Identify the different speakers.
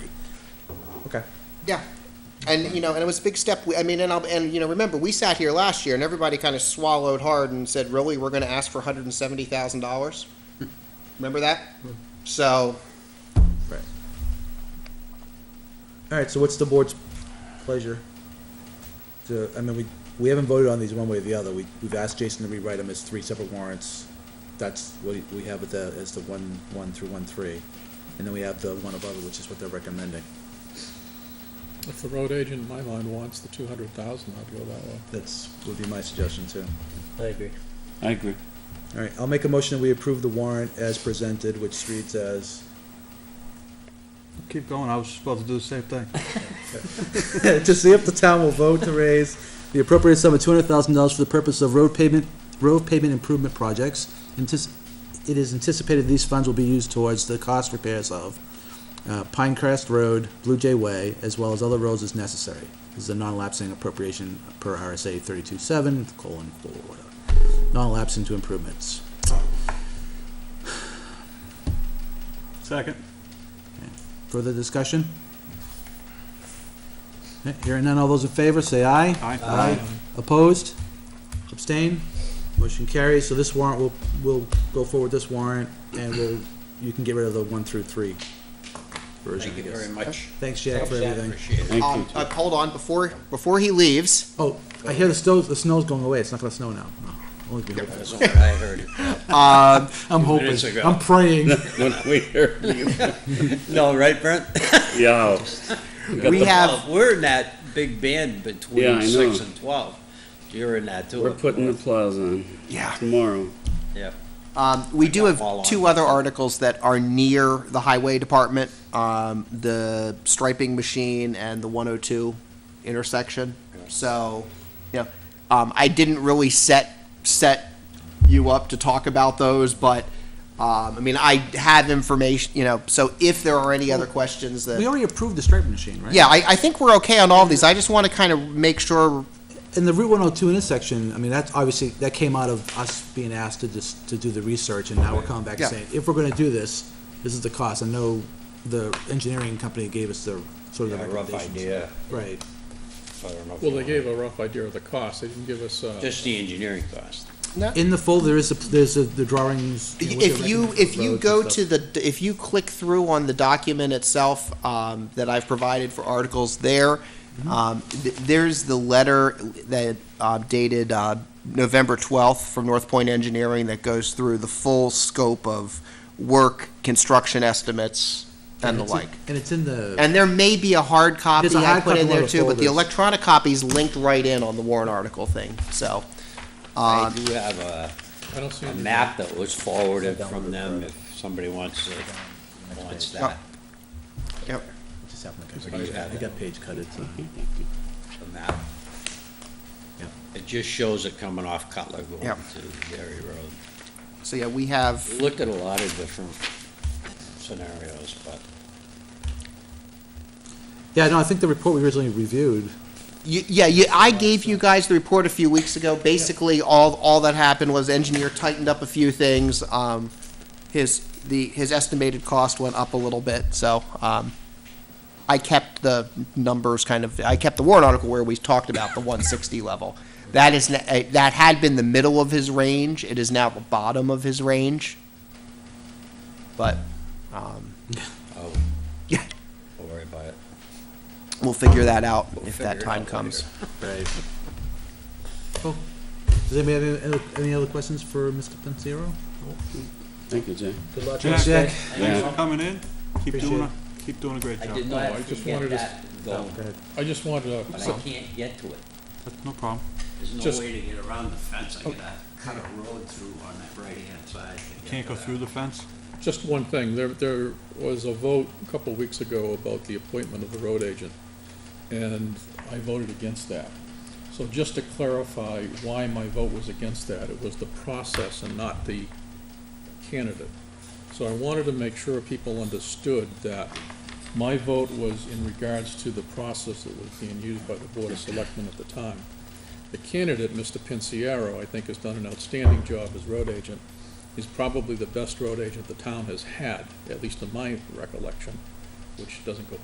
Speaker 1: Okay.
Speaker 2: Yeah. And, you know, and it was a big step. We- I mean, and, I'll, and, you know, remember, we sat here last year and everybody kind of swallowed hard and said, really, we're going to ask for $170,000? Remember that?
Speaker 3: Mm-hmm.
Speaker 2: So,
Speaker 1: Right. All right. So what's the board's pleasure? To, I mean, we, we haven't voted on these one way or the other. We, we've asked Jason to rewrite them as three separate warrants. That's what we have with the, as the one, one through one, three. And then we have the one above it, which is what they're recommending.
Speaker 4: If the road agent in my mind wants the two hundred thousand, I'd go that way.
Speaker 1: That's, would be my suggestion too.
Speaker 5: I agree.
Speaker 3: I agree.
Speaker 1: All right, I'll make a motion that we approve the warrant as presented, which reads as,
Speaker 6: Keep going, I was about to do the same thing.
Speaker 1: to see if the town will vote to raise
Speaker 5: The appropriate sum of two hundred thousand dollars for the purpose of road pavement, road pavement improvement projects. Antici- It is anticipated these funds will be used towards the cost repairs of uh, Pinecrest Road, Blue Jay Way, as well as other roads as necessary. This is a non-lapsing appropriation per RSA thirty-two seven, colon, four, whatever. Non-lapsing to improvements.
Speaker 6: Second.
Speaker 5: Further discussion? Okay, Hearing none, all those in favor, say aye.
Speaker 6: Aye.
Speaker 5: Opposed? Abstain?
Speaker 1: Motion carries, so this warrant will, will go forward this warrant, and we'll, you can get rid of the one through three version,
Speaker 3: Thank
Speaker 1: I
Speaker 3: you
Speaker 1: guess.
Speaker 3: very much.
Speaker 1: Thanks, Jack, for everything.
Speaker 3: Thank you.
Speaker 2: um, uh, hold on, before, before he leaves,
Speaker 1: Oh, I hear the snow, the snow's going away, it's not gonna snow now. No, only be hopeful.
Speaker 3: That's what I heard.
Speaker 2: uh,
Speaker 5: I'm hoping,
Speaker 3: minutes ago.
Speaker 5: I'm praying.
Speaker 3: When we heard you.
Speaker 7: No, right, Brent?
Speaker 3: Yeah.
Speaker 2: we have,
Speaker 7: Well, We're in that big band
Speaker 3: Yeah, I
Speaker 7: between
Speaker 3: know.
Speaker 7: six and twelve. You're in that too.
Speaker 3: We're
Speaker 7: of
Speaker 3: putting the
Speaker 7: course.
Speaker 3: plows on
Speaker 2: yeah.
Speaker 3: tomorrow.
Speaker 7: Yeah.
Speaker 2: Um, we do
Speaker 7: fall on.
Speaker 2: have two other articles that are near the highway department, um, the striping machine and the one oh two intersection. So, you know, um, I didn't really set, set you up to talk about those, but, um, I mean, I have information, you know, so if there are any other questions
Speaker 5: We
Speaker 2: that.
Speaker 5: already approved the striping machine, right?
Speaker 2: Yeah, I, I think we're okay on all of these. I just want to kind of make sure,
Speaker 5: And the Route one oh two intersection, I mean, that's obviously, that came out of us being asked to just, to do the research, and now we're coming back and
Speaker 2: Yeah.
Speaker 5: saying, if we're gonna do this, this is the cost. I know the engineering company gave us their, sort of
Speaker 7: Yeah,
Speaker 5: the
Speaker 7: a rough
Speaker 5: recommendations.
Speaker 7: idea.
Speaker 5: Right.
Speaker 7: I don't know
Speaker 4: Well,
Speaker 7: if you
Speaker 4: they
Speaker 7: want-
Speaker 4: gave a rough idea of the cost, they didn't give us, uh,
Speaker 7: Just the engineering cost.
Speaker 5: In the folder, there is, a- there's a- the drawings. you know, what
Speaker 2: if
Speaker 5: they're
Speaker 2: you,
Speaker 5: recommending
Speaker 2: if
Speaker 5: for
Speaker 2: you
Speaker 5: roads
Speaker 2: go
Speaker 5: and
Speaker 2: to
Speaker 5: stuff.
Speaker 2: the, if you click through on the document itself, um, that I've provided for articles there,
Speaker 5: Mm-hmm.
Speaker 2: um, th- there's the letter that, uh, dated, uh, November twelfth from North Point Engineering that goes through the full scope of work, construction estimates, and the
Speaker 5: it's in-
Speaker 2: like.
Speaker 5: And it's in the,
Speaker 2: And there may be a hard copy
Speaker 5: There's a
Speaker 2: I
Speaker 5: hard
Speaker 2: put
Speaker 5: copy in
Speaker 2: in
Speaker 5: one
Speaker 2: there
Speaker 5: of the
Speaker 2: too, but the
Speaker 5: folders.
Speaker 2: electronic copy's linked right in on the warrant article thing, so.
Speaker 3: Uh,
Speaker 2: um,
Speaker 7: I do have a,
Speaker 4: I don't see
Speaker 7: a
Speaker 4: any.
Speaker 7: map that was forwarded from them if somebody wants to, wants that.
Speaker 2: Yep.
Speaker 5: it just happened to
Speaker 7: Somebody
Speaker 5: get-
Speaker 7: had
Speaker 5: I
Speaker 7: it.
Speaker 5: got page cut, it's, uh,
Speaker 7: The map.
Speaker 5: Yeah.
Speaker 7: It just shows it coming off Cutler going
Speaker 2: Yep.
Speaker 7: to Dairy Road.
Speaker 2: So, yeah, we have.
Speaker 7: We Looked at a lot of different scenarios, but
Speaker 5: yeah, no, I think the report we originally reviewed,
Speaker 2: Y- Yeah, you, I gave you guys the report a few weeks ago. Basically, all, all that happened was engineer tightened up a few things. Um, his, the, his estimated cost went up a little bit, so, um, I kept the numbers kind of, I kept the warrant article where we talked about the one sixty level. That is, n- eh, that had been the middle of his range. It is now the bottom of his range. But, um,
Speaker 7: I'll
Speaker 2: yeah,
Speaker 7: Don't Oh. worry about it.
Speaker 2: we'll figure that out
Speaker 7: We'll
Speaker 2: if
Speaker 7: figure
Speaker 2: that
Speaker 7: it
Speaker 2: time
Speaker 7: out
Speaker 2: comes.
Speaker 7: later.
Speaker 5: Right. Cool. Does anybody have any- any other questions for Mr. Pancero?
Speaker 3: Thank you, Jay.
Speaker 5: Good luck.
Speaker 6: Jack.
Speaker 5: Thanks, Jack.
Speaker 6: Thanks for coming in. Keep
Speaker 5: Appreciate
Speaker 6: doing,
Speaker 5: it.
Speaker 6: a- keep doing a great
Speaker 7: I
Speaker 6: job.
Speaker 7: did
Speaker 4: No, I
Speaker 7: not
Speaker 4: just
Speaker 7: get
Speaker 4: wanted to s-
Speaker 7: that going,
Speaker 5: Go ahead.
Speaker 4: I just wanted
Speaker 7: but
Speaker 4: to,
Speaker 7: I can't get to it.
Speaker 6: That's No problem.
Speaker 7: There's
Speaker 4: Just- Oh.
Speaker 7: no way to get around the fence. I gotta cut a road through on that right-hand side. to get
Speaker 6: Can't
Speaker 7: to
Speaker 6: go
Speaker 7: that.
Speaker 6: through the fence?
Speaker 4: just one thing, there, there was a vote a couple weeks ago about the appointment of the road agent, and I voted against that. So just to clarify why my vote was against that, it was the process and not the candidate. So I wanted to make sure people understood that my vote was in regards to the process that was being used by the Board of Selectmen at the time. The candidate, Mr. Pinciero, I think has done an outstanding job as road agent. He's probably the best road agent the town has had, at least in my recollection, which doesn't go